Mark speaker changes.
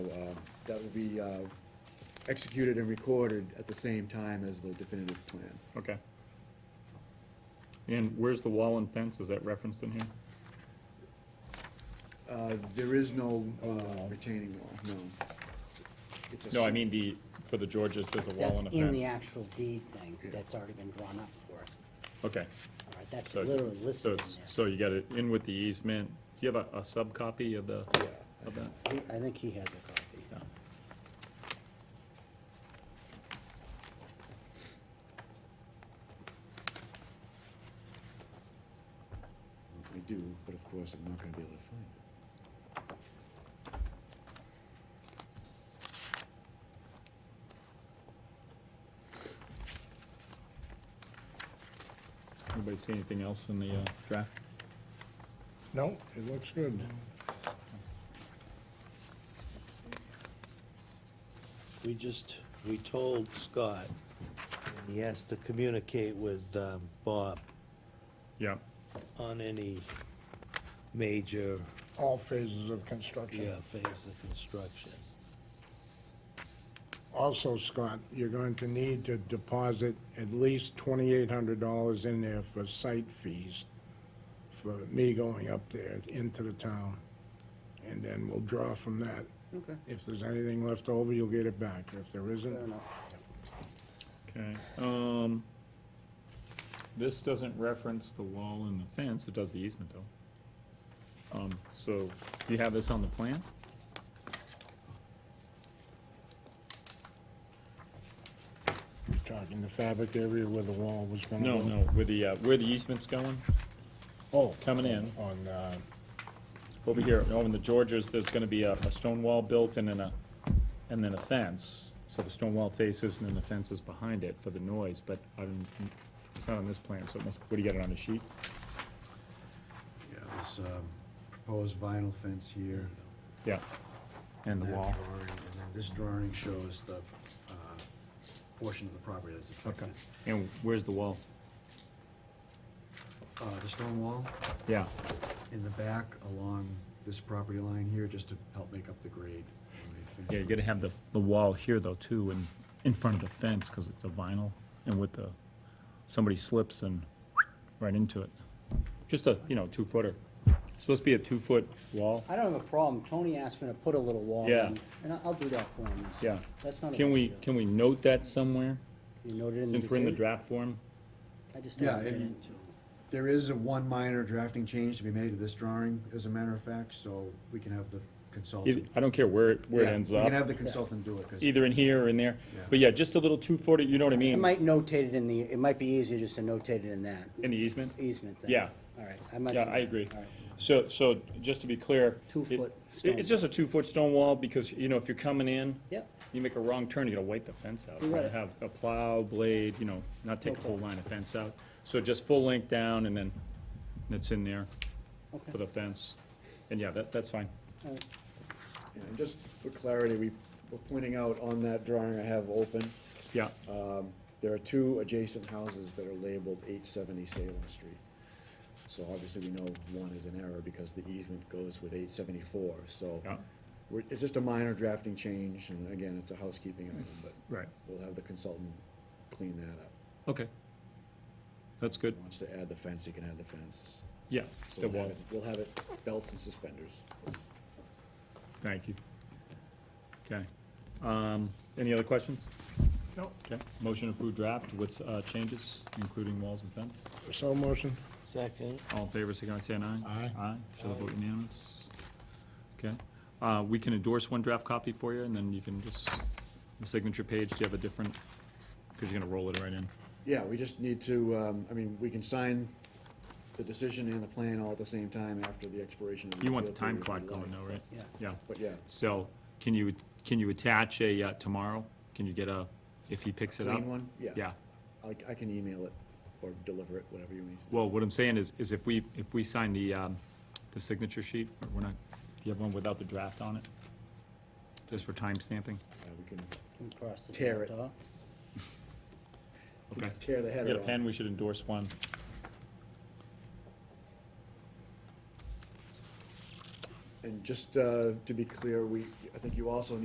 Speaker 1: that will be uh, executed and recorded at the same time as the definitive plan.
Speaker 2: Okay. And where's the wall and fence? Is that referenced in here?
Speaker 1: Uh, There is no uh, retaining wall, no. It's a
Speaker 2: No, I
Speaker 1: s-
Speaker 2: mean the, for the Georges, there's a wall
Speaker 3: That's
Speaker 2: and a fence.
Speaker 3: in the actual deed thing, that's already been drawn up for it.
Speaker 2: Okay.
Speaker 3: All right, that's
Speaker 2: so-
Speaker 3: literally
Speaker 2: so
Speaker 3: listed
Speaker 2: it's-
Speaker 3: in
Speaker 2: So you got it in with the easement. Do you have a, a subcopy of the, of that?
Speaker 3: there. He- I think he has a copy.
Speaker 2: Yeah.
Speaker 1: I do, but of course, I'm not gonna be able to find it.
Speaker 2: Anybody see anything else in the uh, draft?
Speaker 4: No, it looks good.
Speaker 5: We just, we told Scott, and he has to communicate with um, Bob
Speaker 2: Yeah.
Speaker 5: on any major
Speaker 4: All phases of
Speaker 5: yeah,
Speaker 4: construction.
Speaker 5: phase of construction.
Speaker 4: Also, Scott, you're going to need to deposit at least twenty-eight hundred dollars in there for site fees for me going up there into the town. And then we'll draw from that.
Speaker 3: Okay.
Speaker 4: If there's anything left over, you'll get it back. If there isn't,
Speaker 3: Fair enough.
Speaker 2: Okay. Um, this doesn't reference the wall and the fence. It does the easement though. Um, so do you have this on the plan?
Speaker 4: talking the fabric area where the wall was gonna
Speaker 2: No,
Speaker 4: go.
Speaker 2: no, where the, uh, where the easement's going,
Speaker 4: Oh,
Speaker 2: coming in.
Speaker 4: on, uh,
Speaker 2: Over here, over in the Georges, there's gonna be a, a stone wall built and then a, and then a fence. So the stone wall faces and then the fence is behind it for the noise, but I didn't, it's not on this plan, so it must, what do you got it on the sheet?
Speaker 6: Yeah, this um, proposed vinyl fence here.
Speaker 2: Yeah, and the
Speaker 6: that
Speaker 2: wall.
Speaker 6: drawing, And then this drawing shows the uh, portion of the property that's
Speaker 2: Okay,
Speaker 6: affected.
Speaker 2: and where's the wall?
Speaker 6: Uh, The stone wall
Speaker 2: Yeah,
Speaker 6: in the back along this property line here, just to help make up the grade. when we finish
Speaker 2: yeah, you
Speaker 6: it.
Speaker 2: gotta have the, the wall here though too, and in front of the fence, cause it's a vinyl, and with the, somebody slips and right into it. Just a, you know, two footer. Supposed to be a two foot wall.
Speaker 3: I don't have a problem, Tony asked me to put a little wall
Speaker 2: Yeah.
Speaker 3: in, and I- I'll do that for him.
Speaker 2: Yeah.
Speaker 3: That's not a
Speaker 2: Can
Speaker 3: big
Speaker 2: we,
Speaker 3: deal.
Speaker 2: can we note that somewhere,
Speaker 3: You noted in the
Speaker 2: since we're in the
Speaker 3: decision?
Speaker 2: draft form?
Speaker 3: I just
Speaker 6: Yeah,
Speaker 3: don't get
Speaker 6: and-
Speaker 3: into.
Speaker 6: There is a one minor drafting change to be made to this drawing, as a matter of fact, so we can have the
Speaker 2: Either-
Speaker 6: consultant.
Speaker 2: I don't care where, it where it
Speaker 6: Yeah,
Speaker 2: ends
Speaker 6: We can have
Speaker 2: up,
Speaker 6: the consultant do it, because
Speaker 2: either in here or in there,
Speaker 6: Yeah.
Speaker 2: but yeah, just a little two-footer, you know what I
Speaker 3: I
Speaker 2: mean,
Speaker 3: might notate it in the, it might be easier just to notate it in that
Speaker 2: in the easement?
Speaker 3: easement thing.
Speaker 2: Yeah.
Speaker 3: All right, I might.
Speaker 2: Yeah,
Speaker 3: do
Speaker 2: I
Speaker 3: that.
Speaker 2: agree.
Speaker 3: All right.
Speaker 2: So, so, just to be clear.
Speaker 3: Two-foot
Speaker 2: it-
Speaker 3: stone
Speaker 2: it- It's just a two-foot stone wall, because, you know, if you're coming in.
Speaker 3: Yep.
Speaker 2: You make a wrong turn, you gotta wipe the fence out.
Speaker 3: You got it.
Speaker 2: Have a plow, blade, you know, not take the whole line of fence out, so just full length down, and then it's in there
Speaker 3: Okay.
Speaker 2: for the fence, and yeah, that, that's fine.
Speaker 3: All right.
Speaker 1: Yeah, And just for clarity, we were pointing out on that drawing I have open,
Speaker 2: Yeah,
Speaker 1: um, there are two adjacent houses that are labeled eight seventy Salem Street. So obviously, we know one is an error because the easement goes with eight seventy-four, so.
Speaker 2: Yeah.
Speaker 1: we're- It's just a minor drafting change, and again, it's a housekeeping item, but.
Speaker 2: Right.
Speaker 1: We'll have the consultant clean that up.
Speaker 2: okay. That's good,
Speaker 1: If he Wants to add the fence, he can add the fence.
Speaker 2: yeah,
Speaker 1: So
Speaker 2: the
Speaker 1: we'll
Speaker 2: wall,
Speaker 1: have it- We'll have it belts and suspenders.
Speaker 2: thank you. Okay, um, any other questions?
Speaker 4: no,
Speaker 2: Okay, motion approved draft with, uh, changes, including walls and fence.
Speaker 4: so motion.
Speaker 5: Second,
Speaker 2: All in favor, signify by saying aye.
Speaker 4: Aye.
Speaker 2: Aye, show the vote unanimous. Okay, uh, we can endorse one draft copy for you, and then you can just, the signature page, do you have a different, because you're gonna roll it right in.
Speaker 1: Yeah, we just need to, um, I mean, we can sign the decision and the plan all at the same time after the expiration of the.
Speaker 2: You want the
Speaker 1: appeal
Speaker 2: time
Speaker 1: period if
Speaker 2: clock
Speaker 1: you
Speaker 2: going
Speaker 1: like.
Speaker 2: though, right?
Speaker 3: Yeah.
Speaker 2: Yeah,
Speaker 1: But yeah,
Speaker 2: so, can you, can you attach a, uh, tomorrow? Can you get a, if he picks it up?
Speaker 1: clean one, yeah.
Speaker 2: Yeah,
Speaker 1: I, I can email it or deliver it, whatever you need.
Speaker 2: well, what I'm saying is, is if we, if we sign the, um, the signature sheet, we're not, do you have one without the draft on it? Just for time stamping?
Speaker 1: Uh, we can
Speaker 3: Can we cross the
Speaker 1: Tear
Speaker 3: draft
Speaker 1: it.
Speaker 3: off?
Speaker 1: we can
Speaker 2: Okay.
Speaker 1: tear the
Speaker 2: You
Speaker 1: header
Speaker 2: got a
Speaker 1: off.
Speaker 2: pen, we should endorse one.
Speaker 1: And just, uh, to be clear, we, I think you also